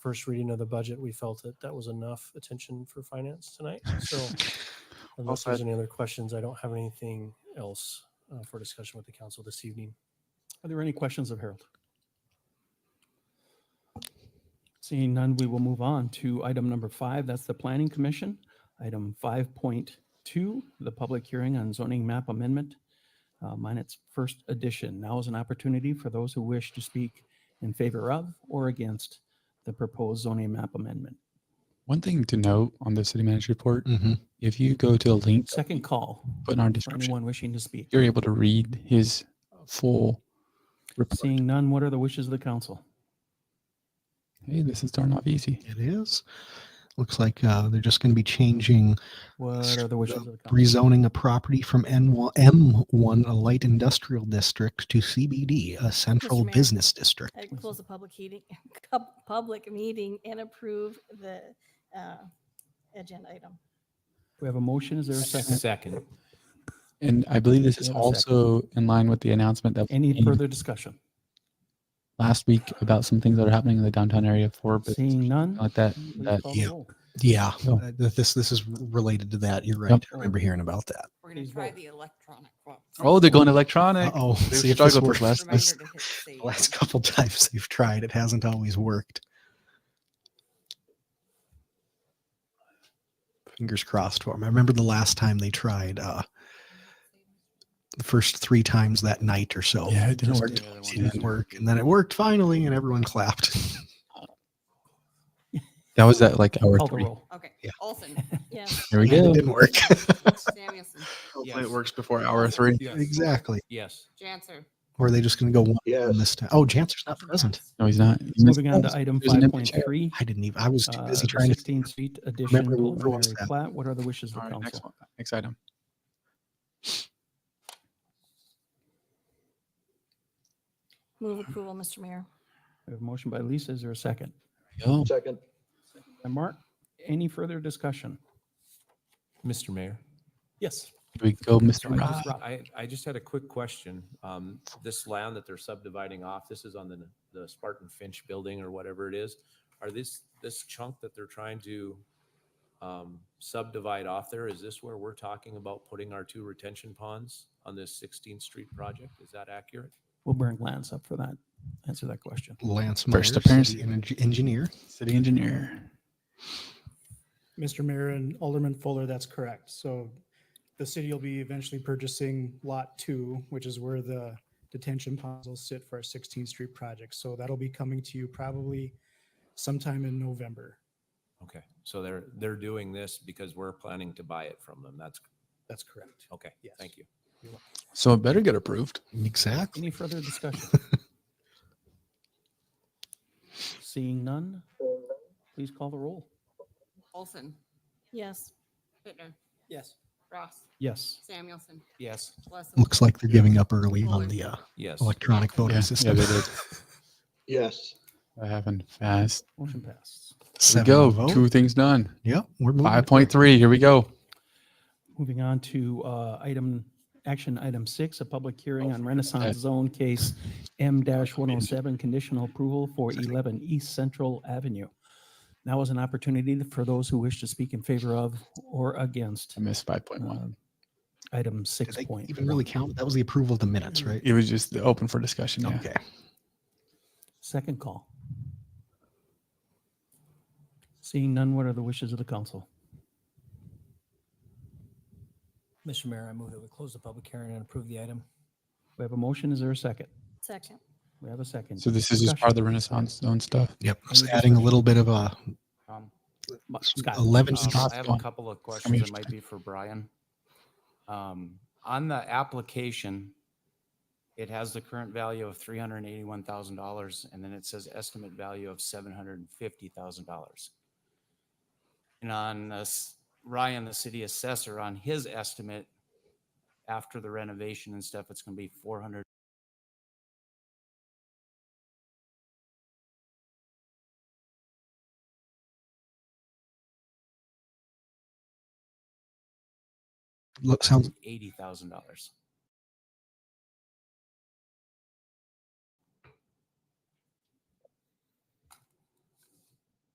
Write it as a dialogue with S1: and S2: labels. S1: first reading of the budget, we felt that that was enough attention for finance tonight. So unless there's
S2: said.
S1: any other questions, I don't have anything else uh, for discussion with the council this evening.
S3: Are there any questions of Harold? Seeing none, we will move on to item number five. That's the Planning Commission. Item 5.2, the public hearing on zoning map amendment, uh, mine its first edition. Now is an opportunity for those who wish to speak in favor of or against the proposed zoning map amendment.
S2: One thing to note on the city manager report, if you go to the link
S3: Second call
S2: put in our
S3: for
S2: description,
S3: anyone wishing to speak.
S2: you're able to read his full report.
S3: Seeing none, what are the wishes of the council?
S2: Hey, this is darn off easy.
S4: It is. Looks like uh, they're just going to be changing,
S3: What are the wishes of the council?
S4: rezoning a property from N1, M1, a light industrial district, to CBD, a central
S5: Mayor.
S4: business district.
S5: I'd close the public heating, cup- public meeting and approve the uh, agenda item.
S3: We have a motion. Is there a second?
S6: Second.
S2: And I believe this is
S3: Yeah, exactly.
S2: also in line with the announcement that we
S3: Any
S2: made
S3: further discussion?
S2: last week about some things that are happening in the downtown area for business
S3: Seeing none?
S2: like that.
S3: please
S2: that
S3: call the
S4: yeah.
S3: roll.
S4: Yeah,
S2: Oh.
S4: uh, th- this this is related to that. You're right.
S2: Yep.
S4: I remember hearing about that.
S7: We're gonna
S3: Please
S7: try
S3: vote.
S7: the electronic vote.
S2: oh, they're going electronic.
S4: Oh,
S2: They've
S4: see if this
S2: struggled with
S4: works.
S2: last-
S4: Last,
S7: Reminder
S4: this,
S7: to hit
S4: the
S7: save.
S4: last couple times they've tried, it hasn't always worked. Fingers crossed for them. I remember the last time they tried. Uh, the first three times that night or so.
S2: Yeah, it didn't
S4: Just
S2: work.
S4: didn't- it didn't work, and then it worked finally, and everyone clapped.
S2: That was at like hour
S3: Call the
S2: three.
S3: roll.
S7: Okay,
S4: Yeah.
S7: Olson,
S5: Yeah.
S2: There we
S4: It
S2: go.
S4: didn't work.
S7: Samuelson,
S2: Hopefully
S6: Yes.
S2: it works before hour three.
S4: exactly.
S6: Yes.
S7: Janser.
S4: Or are they just going to go one one this time? Oh, Jancer's not present.
S2: No, he's not. He's missing
S3: Moving on to item
S2: There's an empty chair.
S3: 5.3.
S4: I didn't even. I was too
S3: uh,
S4: busy
S3: the
S4: trying to
S3: 16th Street Edition
S4: remember what
S3: preliminary
S4: was that.
S3: plat. What are the wishes of
S2: All
S3: the
S2: right, next
S3: council?
S2: one. Next item.
S5: Move approval, Mr. Mayor.
S3: We have a motion by Lisa. Is there a second?
S2: Yo.
S8: Second.
S3: And Mark, any further discussion?
S6: Mr. Mayor.
S3: Yes.
S2: Here we go, Mr.
S6: I
S2: Rob.
S6: just- I, I just had a quick question. Um, This land that they're subdividing off, this is on the, the Spartan Finch building or whatever it is. Are this, this chunk that they're trying to um, subdivide off there, is this where we're talking about putting our two retention ponds on this 16th Street project? Is that accurate?
S3: We'll bring Lance up for that. Answer that question.
S4: Lance
S2: First
S4: Myers,
S2: appearance.
S4: city en- engineer.
S2: City engineer.
S9: Mr. Mayor and Alderman Fuller, that's correct. So the city will be eventually purchasing Lot 2, which is where the detention ponds will sit for our 16th Street project. So that'll be coming to you probably sometime in November.
S6: Okay, so they're, they're doing this because we're planning to buy it from them. That's,
S9: That's correct.
S6: okay,
S9: Yes.
S6: thank you.
S2: So it better get approved.
S4: Exactly.
S3: Any further discussion? Seeing none, please call the roll.
S7: Olson,
S5: Yes.
S7: Bittner,
S3: Yes.
S7: Ross,
S3: Yes.
S7: Samuelson,
S6: Yes.
S7: Lessing.
S4: Looks like they're giving up early on the uh,
S6: Yes.
S4: electronic voting
S2: Yeah, yeah,
S4: system.
S2: they did.
S8: Yes.
S2: That happened fast.
S3: Motion passed.
S2: Here
S4: Seven
S2: we go.
S4: vote.
S2: Two things done.
S4: Yep, we're moving.
S2: Five point three. Here we go.
S3: Moving on to uh, item, action item six, a public hearing on Renaissance Zone Case M-107, conditional approval for 11 East Central Avenue. Now is an opportunity for those who wish to speak in favor of or against
S2: I missed five point
S3: uh,
S2: one.
S3: item
S4: Did
S3: six
S4: they
S3: point.
S4: even really count? That was the approval of the minutes, right?
S2: It was just the open for discussion. Yeah.
S4: Okay.
S3: Second call. Seeing none, what are the wishes of the council?
S10: Mr. Mayor, I move that we close the public hearing and approve the item.
S3: We have a motion. Is there a second?
S5: Second.
S3: We have a second.
S2: So this is just part of the Renaissance zone stuff.
S4: Yep. Just adding a little bit of a
S3: of Scott.
S4: eleven.
S2: Just
S10: Um,
S2: ask
S10: I have
S2: one.
S10: a couple of questions
S2: here.
S10: that might be for Brian. Um, On the application, it has the current value of three hundred and eighty-one thousand dollars, and then it says estimate value of seven hundred and fifty thousand dollars. And on this, Ryan, the city assessor, on his estimate, after the renovation and stuff, it's gonna be four hundred
S4: Look, sounds
S10: eighty thousand dollars.